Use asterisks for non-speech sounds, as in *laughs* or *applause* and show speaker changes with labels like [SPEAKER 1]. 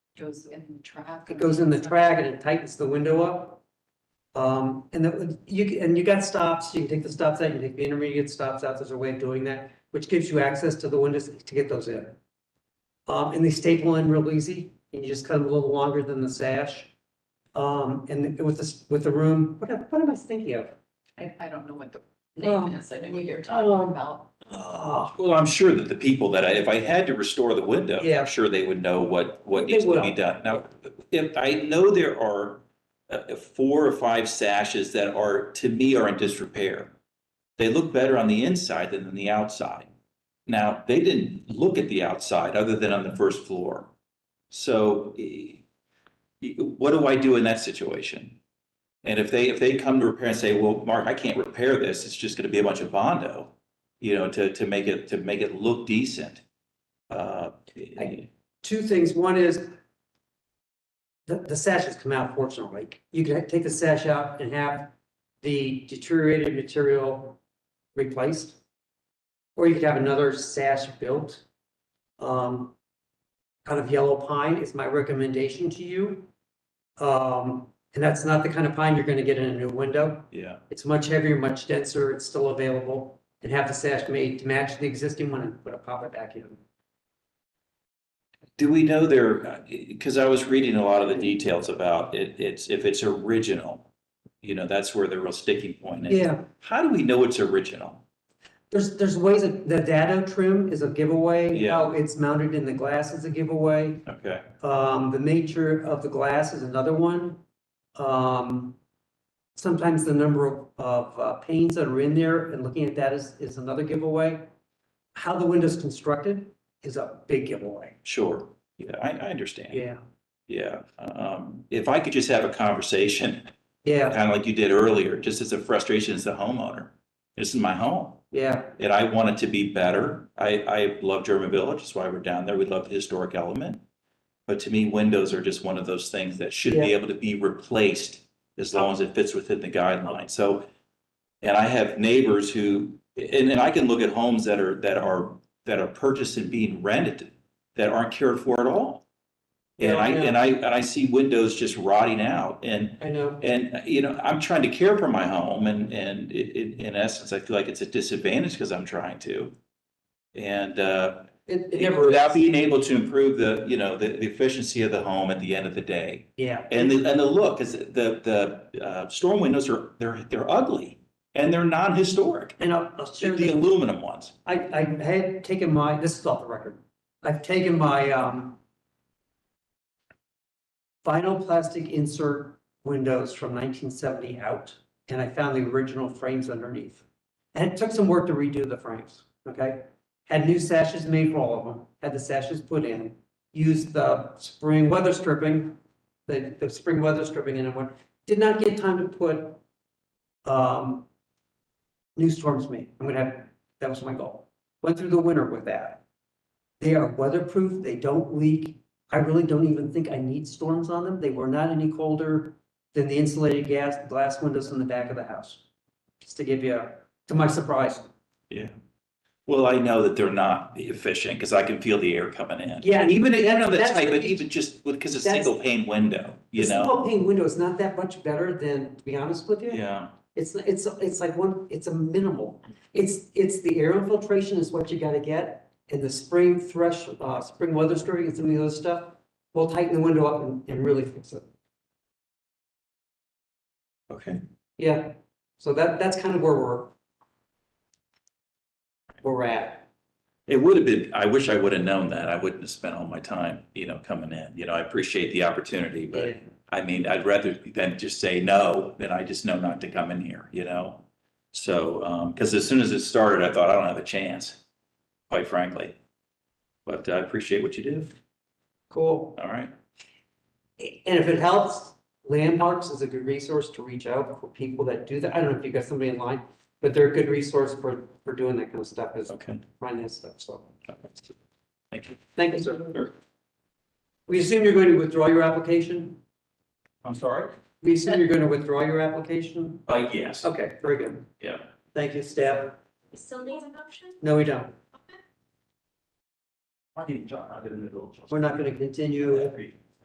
[SPEAKER 1] goes in the track.
[SPEAKER 2] it goes in the track and it tightens the window up. Um, and that, you, can- and you got stops, you can take the stops out, you can take the intermediate stops out, there's a way of doing that, which gives you access to the windows to get those in. Um, and they staple in real easy, and you just cut them a little longer than the sash. Um, and with this, with the room, what, am- what am I thinking of?
[SPEAKER 1] I, I don't know what the
[SPEAKER 2] Oh.
[SPEAKER 1] name is, I know what you're talking about.
[SPEAKER 2] Oh,
[SPEAKER 3] Well, I'm sure that the people that I, if I had to restore the window,
[SPEAKER 2] Yeah.
[SPEAKER 3] I'm sure they would know what, what
[SPEAKER 2] They
[SPEAKER 3] needs to be
[SPEAKER 2] will.
[SPEAKER 3] done. Now, if, I know there are uh, four or five sashes that are, to me, are in disrepair. They look better on the inside than on the outside. Now, they didn't look at the outside other than on the first floor. So eh, eh, what do I do in that situation? And if they, if they come to repair and say, well, Mark, I can't repair this, it's just gonna be a bunch of Bondo, you know, to, to make it, to make it look decent. Uh,
[SPEAKER 2] I- two things. One is the, the sashes come out fortunately. You can take the sash out and have the deteriorated material replaced. Or you could have another sash built. Um, kind of yellow pine is my recommendation to you. Um, and that's not the kind of pine you're gonna get in a new window.
[SPEAKER 3] yeah,
[SPEAKER 2] It's much heavier, much denser, it's still available. And have the sash made to match the existing one and put a pop it back in.
[SPEAKER 3] do we know there, because I was reading a lot of the details about it, it's, if it's original, you know, that's where the real sticking point is.
[SPEAKER 2] Yeah.
[SPEAKER 3] How do we know it's original?
[SPEAKER 2] There's, there's ways that the dado trim is a giveaway.
[SPEAKER 3] Yeah.
[SPEAKER 2] How it's mounted in the glass is a giveaway.
[SPEAKER 3] Okay,
[SPEAKER 2] Um, the nature of the glass is another one. Um, sometimes the number of, of uh, panes that are in there and looking at that is, is another giveaway. How the window's constructed is a big giveaway.
[SPEAKER 3] sure, yeah, I, I understand.
[SPEAKER 2] Yeah,
[SPEAKER 3] Yeah, um, if I could just have a conversation *laughs*
[SPEAKER 2] yeah,
[SPEAKER 3] kind of like you did earlier, just as a frustration as the homeowner. This is my home
[SPEAKER 2] yeah,
[SPEAKER 3] and I want it to be better. I, I love German Village. That's why we're down there. We love the historic element. But to me, windows are just one of those things that should be able to be replaced as long as it fits within the guidelines. So, and I have neighbors who, and, and I can look at homes that are, that are, that are purchased and being rented that aren't cared for at all. And I,
[SPEAKER 2] Yeah, yeah.
[SPEAKER 3] and I, and I see windows just rotting out and
[SPEAKER 2] I know.
[SPEAKER 3] and, uh, you know, I'm trying to care for my home and, and it, it, in essence, I feel like it's a disadvantage because I'm trying to. And, uh,
[SPEAKER 2] It, it never.
[SPEAKER 3] without being able to improve the, you know, the, the efficiency of the home at the end of the day.
[SPEAKER 2] Yeah,
[SPEAKER 3] And the, and the look is the, the, uh, storm windows are, they're, they're ugly and they're non-historic.
[SPEAKER 2] and I'll, I'll share
[SPEAKER 3] The
[SPEAKER 2] the
[SPEAKER 3] aluminum ones.
[SPEAKER 2] I, I had taken my, this is off the record, I've taken my, um, vinyl plastic insert windows from nineteen seventy out, and I found the original frames underneath. And it took some work to redo the frames, okay? Had new sashes made for all of them, had the sashes put in, used the spring weather stripping, the, the spring weather stripping in and went, did not get time to put, um, new storms made. I'm gonna have that was my goal. Went through the winter with that. They are weatherproof, they don't leak. I really don't even think I need storms on them. They were not any colder than the insulated gas, glass windows in the back of the house. Just to give you, a- to my surprise.
[SPEAKER 3] Well, I know that they're not efficient because I can feel the air coming in.
[SPEAKER 2] Yeah, and
[SPEAKER 3] Even, I don't know the
[SPEAKER 2] that's
[SPEAKER 3] type,
[SPEAKER 2] the-
[SPEAKER 3] but even just because it's a
[SPEAKER 2] that's-
[SPEAKER 3] single pane window,
[SPEAKER 2] The
[SPEAKER 3] you know?
[SPEAKER 2] single pane window is not that much better than, to be honest with you.
[SPEAKER 3] Yeah.
[SPEAKER 2] It's, it's, it's like one, it's a minimal. It's, it's the air infiltration is what you gotta get. And the spring thresh, uh, spring weather stirring and some of the other stuff, will tighten the window up and, and really fix it.
[SPEAKER 3] Okay.
[SPEAKER 2] Yeah, so that, that's kind of where we're. where We're at.
[SPEAKER 3] It would have been, I wish I would have known that. I wouldn't have spent all my time, you know, coming in. You know, I appreciate the opportunity, but I mean, I'd rather than just say no, than I just know not to come in here, you know? So, um, because as soon as it started, I thought I don't have a chance, quite frankly. But I appreciate what you do.
[SPEAKER 2] Cool.
[SPEAKER 3] All right.
[SPEAKER 2] And if it helps, Landmarks is a good resource to reach out for people that do that. I don't know if you got somebody in line, but they're a good resource for, for doing that kind of stuff, is
[SPEAKER 3] Okay.
[SPEAKER 2] finding that stuff, so.
[SPEAKER 3] Thank you.
[SPEAKER 2] Thank you, sir. We assume you're going to withdraw your application?
[SPEAKER 3] I'm sorry?
[SPEAKER 2] We assume you're going to withdraw your application?
[SPEAKER 3] Uh, yes.
[SPEAKER 2] Okay, very good.
[SPEAKER 3] Yeah.
[SPEAKER 2] Thank you, staff.
[SPEAKER 4] We Still needs an option?
[SPEAKER 2] No, we don't.
[SPEAKER 3] I didn't, I didn't.
[SPEAKER 2] We're not going to continue.
[SPEAKER 3] agree.